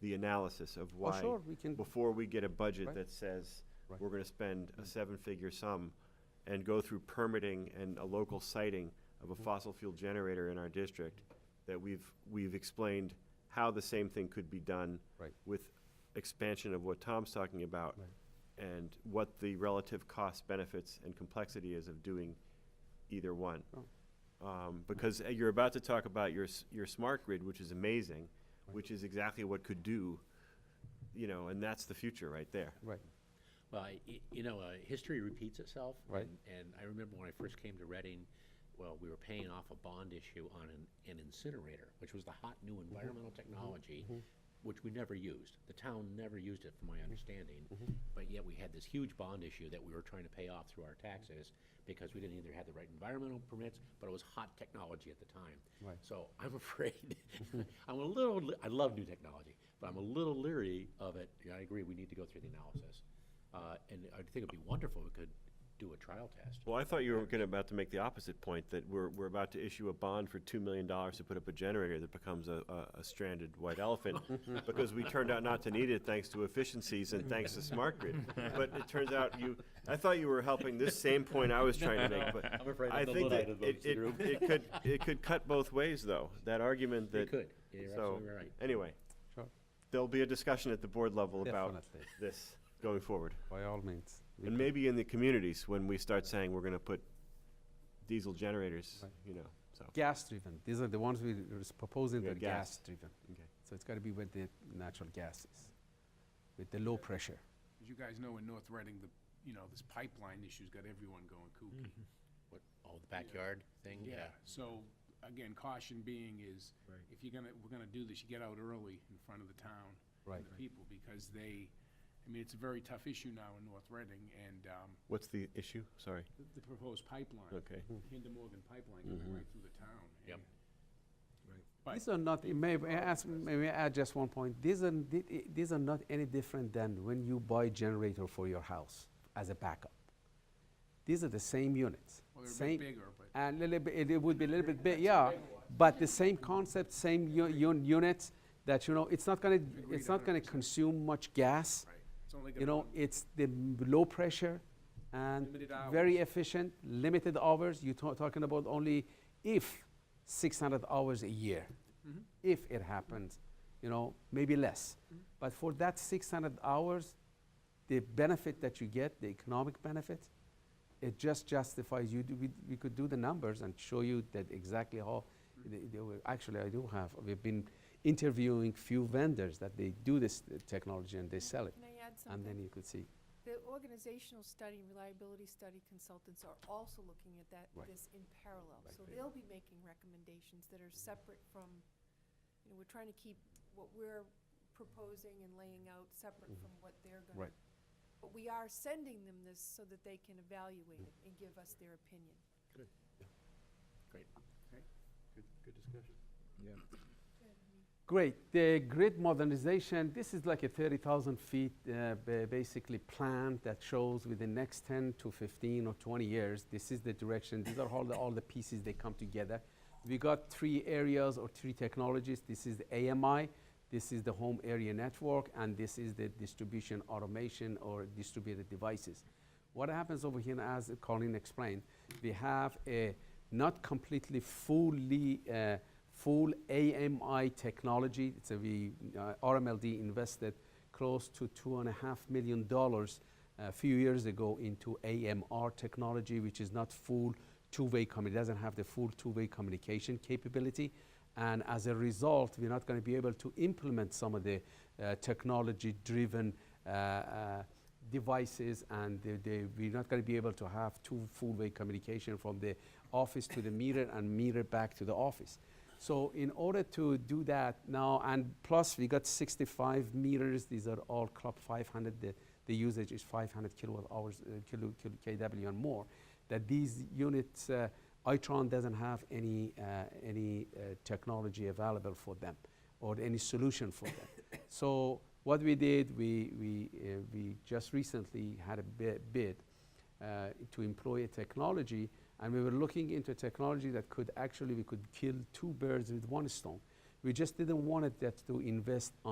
the analysis of Oh, why, sure, we can, before we get a budget Right. that says Right. Mm-hmm. we're gonna spend a seven-figure sum and go through permitting and a local siting of a Mm-hmm. fossil fuel generator in our district, that we've, we've explained how the same thing could be done Right. with expansion of what Tom's talking about and what the relative cost benefits and complexity is of doing either one. Oh. Um, because uh, you're about to talk about your, s- your smart grid, which is amazing, which is exactly what could do, you know, and that's the future right there. right, Well, I- y- you know, uh, history repeats itself. Right. and- And I remember when I first came to Reading, well, we were paying off a bond issue on an an incinerator, which was the hot new Mm-hmm. environmental technology, which we never used. The town never used it, from Mm-hmm. my understanding. But yet we had this huge bond issue that we were trying to pay off through our taxes because we didn't either have the right environmental permits, but it was hot technology at the time. Right. So I'm afraid, I'm a little, le- I love new technology, but I'm a little leery of it. Yeah, I agree, we need to go through the analysis. Uh, And I think it'd be wonderful if we could do a trial test. Well, I thought you were gonna, about to make the opposite point, that we're, we're about to issue a bond for two million dollars to put up a generator that becomes a, a, a stranded white elephant, because we turned out not to need it thanks to efficiencies and thanks to smart grid. But it turns out you, I thought you were helping this same point I was trying to make, but I'm afraid I I'm the think that Luddite it, of it, the group. it could, it could cut both ways, though, that argument that. It could, Yeah, you're So, absolutely right. anyway, sure, there'll be a discussion at the board level about definitely, this going forward. by all means. we And can- maybe in the communities, when we start saying we're gonna put diesel generators, Right. you know, so. Gas-driven, these are the ones we are proposing Yeah, that are gas. gas-driven. Okay. So it's got to be with the natural gases, with the low pressure. As you guys know, in North Reading, the, you know, this pipeline issue's got everyone going kooky. What, oh, the backyard thing, yeah. So, again, caution being is, if you're gonna, we're gonna do this, you get out early in front of the town. Right. And the people, because they, I mean, it's a very tough issue now in North Reading, and, um, What's the issue? Sorry. the- the proposed pipeline, Okay. Kinder Morgan pipeline Mm-hmm. going right through the town. Yep. and- Right. These are not, may I ask, may I add just one point? These are, thi- i- these are not any different than when you buy generator for your house as a backup. These are the same units, Well, they're a bit same, bigger, but. and little bit, it would be a little bit big, yeah, but the same concept, same u- un- units, that, you know, it's not gonna, it's not gonna consume much gas. Right. It's only You gonna know, run- it's the m- low pressure and Limited very hours. efficient, limited hours. You're ta- talking about only if 600 hours a year, Mm-hmm. if it happens, you know, maybe less. But for that 600 hours, the benefit that you get, the economic benefit, it just justifies you. Do, we, we could do the numbers and show you that exactly how. Mm-hmm. They, they were, actually, I do have. We've been interviewing few vendors that they do this uh, technology and they sell it. Can I add And then something? you could see, The organizational study, reliability study consultants are also looking at that, Right. this in parallel. Right. Mm-hmm. So they'll be making recommendations that are separate from, you know, we're trying to keep what we're proposing and laying out separate from what they're gonna. Mm-hmm. Right. But we are sending them this so that they can evaluate it and give us their opinion. Great. Okay. Good, good discussion. great, the grid modernization, this is like a 30,000 feet uh, ba- basically plan that shows within next 10 to 15 or 20 years, this is the direction, these are all the, all the pieces, they come together. We got three areas or three technologies, this is the AMI, this is the home area network, and this is the distribution automation or distributed devices. What happens over here, as Colin explained, we have a not completely fully uh, full AMI technology. So we uh, RMLD invested close to two and a half million dollars uh, a few years ago into AMR technology, which is not full two-way communication. Doesn't have the full two-way communication capability. And as a result, we're not going to be able to implement some of the uh, technology-driven uh, uh, devices and they, they, we're not going to be able to have two full-way communication from the office to the mirror and mirror back to the office. So in order to do that now, and plus we got 65 meters. These are all Club 500. The, the usage is 500 kilowatt hours, uh, kilo, kilo kW and more. That these units, uh, Itron doesn't have any uh, any uh, technology available for them, or any solution for them. so what we did, we we uh, we just recently had a bi- bid uh, to employ a technology, and we were looking into a technology that could actually we could kill two birds with one stone. We just didn't want it that to invest on.